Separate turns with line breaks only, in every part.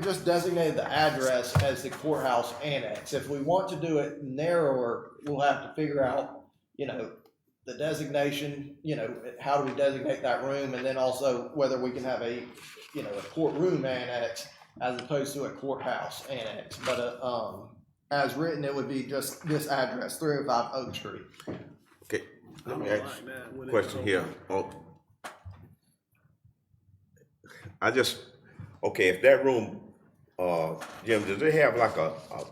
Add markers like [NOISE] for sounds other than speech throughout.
just designated the address as the courthouse annex. If we want to do it narrower, we'll have to figure out, you know, the designation, you know, how do we designate that room? And then also whether we can have a, you know, a courtroom annex as opposed to a courthouse annex. But, uh, um, as written, it would be just this address, three oh five Oak Street.
Okay, let
I don't
me ask
like that when
you a
it's
question
so-
here. Oh. I just, okay, if that room, uh, Jim, does it have like a, a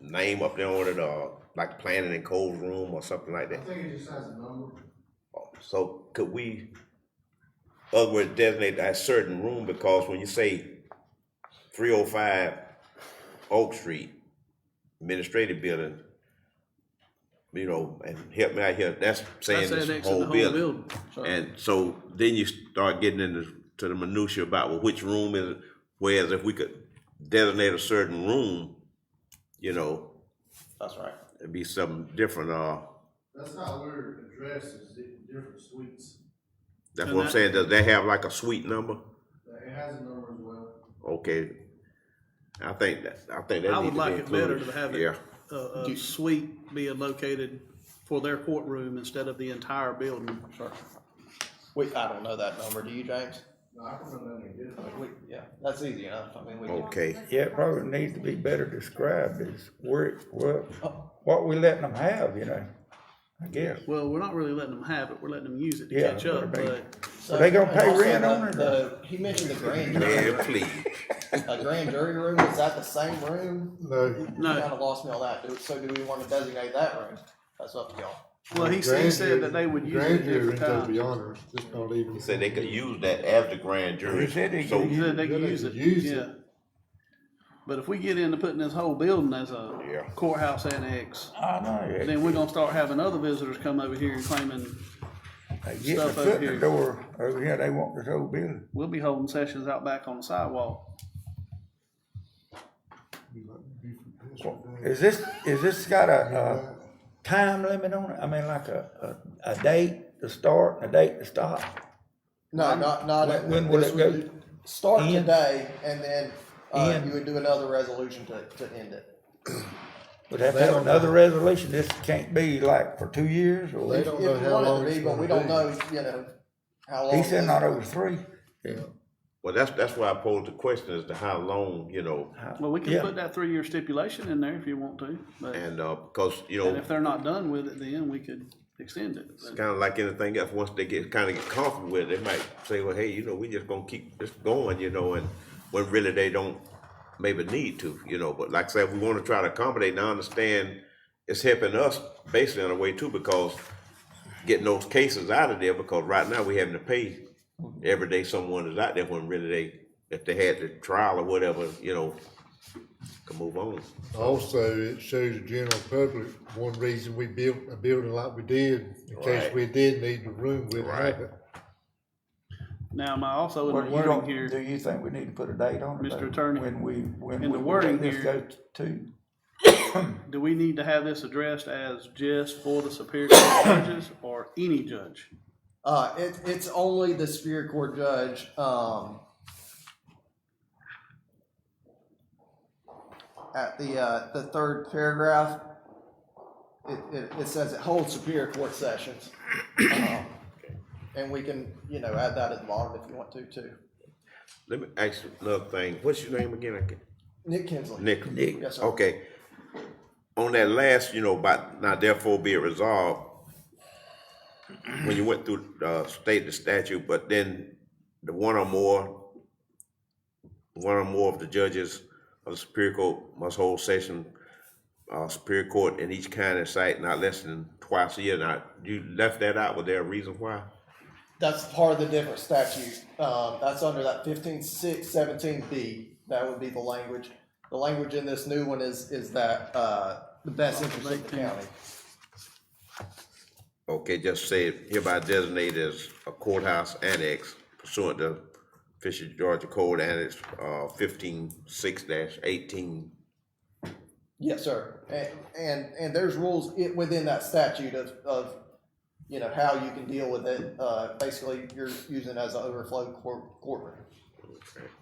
name up there on it, uh, like planning and codes room or something like that? Oh,
I think it just has a number.
So could we, other words, designate that certain room, because when you say three oh five Oak Street, administrative building, you know, and help me out here, that's saying
That's annexing
this
the
whole building.
building.
And so then you start getting into, to the minutia about, well, which room is it? Whereas if we could designate a certain room, you know,
That's right.
it'd be something different, uh,
That's how we're addressed is di- different suites.
that's
And
what I'm
that-
saying, does that have like a suite number?
It has a number as well.
Okay. I think that, I think that
I
need
would
to be
like it better
included.
to have
Yeah,
[LAUGHS] it, a, a suite being located for their courtroom instead of the entire building.
We, I don't know that number. Do you, James?
No, I can run down there and get it.
We, yeah, that's easy enough. I mean, we.
Oh.
can-
okay,
Yeah, it probably needs to be better described as where, what, what we letting them have, you know, I guess.
Well, we're not really letting them have it, we're letting them use it to
Yeah,
catch up,
but I
but
mean-
So-
they gonna pay
and also
rent on
the-
it or-
the- He mentioned the grand jury,
man, please,
a grand jury room, is that the same room?
No,
No.
Kinda lost me on that, Do- so do we wanna designate that room? That's up to y'all.
Well, he said, he
grand
said that they would use it
grand jury,
every
to be
time.
honest, it's not even.
he said they could use that as the grand jury,
He said they
so,
could
He said they could
Yeah,
use it,
use it.
yeah. But if we get into putting this whole building as
Yeah.
a courthouse annex,
I know, yeah.
then we're gonna start having other visitors come over here and claiming,
they get the
stuff over
foot in
here.
the door over here, they want this whole building.
we'll be holding sessions out back on the sidewalk.
Is this, is this got a, a time limit on it? I mean, like a, a, a date to start and a date to stop?
No, not, not.
When- when will
this
it go?
would be- Start
End?
today, and then, uh,
End?
you would do another resolution to, to end it.
Would have to
They
have
don't
another resolution? This can't be like for two years
They
or?
don't
If
know
you
how
want it to
long
be,
it's
But we
gonna
don't
be.
know, you know, how long.
He said
this-
not over three. Yeah.
well, that's, that's why I posed the question as to how long, you know,
Well, we can
Yeah.
put that three-year stipulation in there if you want to, but, and
and, uh, because, you know,
if they're not done with it, then we could extend it.
it's kinda like anything else, once they get, kinda get comfortable with it, they might say, well, hey, you know, we just gonna keep this going, you know, and when really they don't maybe need to, you know, but like I said, we wanna try to accommodate, and I understand it's helping us basically in a way too, because getting those cases out of there because right now we having to pay every day someone is out there when really they, if they had the trial or whatever, you know, can move on.
Also, it shows the general public, one reason we built a building like we did, in case
Right.
we did need the room, we'd
Right.
have it.
Now, am I also in
Well,
the
you
wording
don't,
here?
do you think we need to put a date on it?
Mr.
though?
Attorney,
When we, when we.
in the wording
let this
here-
go To,
Do we need to have this addressed as just for the Superior Court judges or any judge?
Uh, it, it's only the Superior Court judge, um, at the, uh, the third paragraph, it, it, it says it holds Superior Court sessions. Um, And we can, you know, add that at the bottom if you want to, too.
Let me ask you another thing. What's your name again? I can't-
Nick Kinsley.
Nick.
Nick.
Yes, sir.
Okay. On that last, you know, about now therefore be it resolved, when you went through, uh, state the statute, but then the one or more, one or more of the judges of the Superior Court must hold session, uh, Superior Court in each county site not less than twice a year. Now, you left that out. Was there a reason why?
That's part of the different statute. Um, that's under that fifteen six seventeen B. That would be the language. The language in this new one is, is that, uh, the best interest of the county.
Okay, just say it hereby designated as a courthouse annex pursuant to Fisher Georgia Code Annex, uh, fifteen six dash eighteen.
Yes, sir. And, and, and there's rules i within that statute of, of, you know, how you can deal with it. Uh, basically, you're using it as an overflow court, courtroom.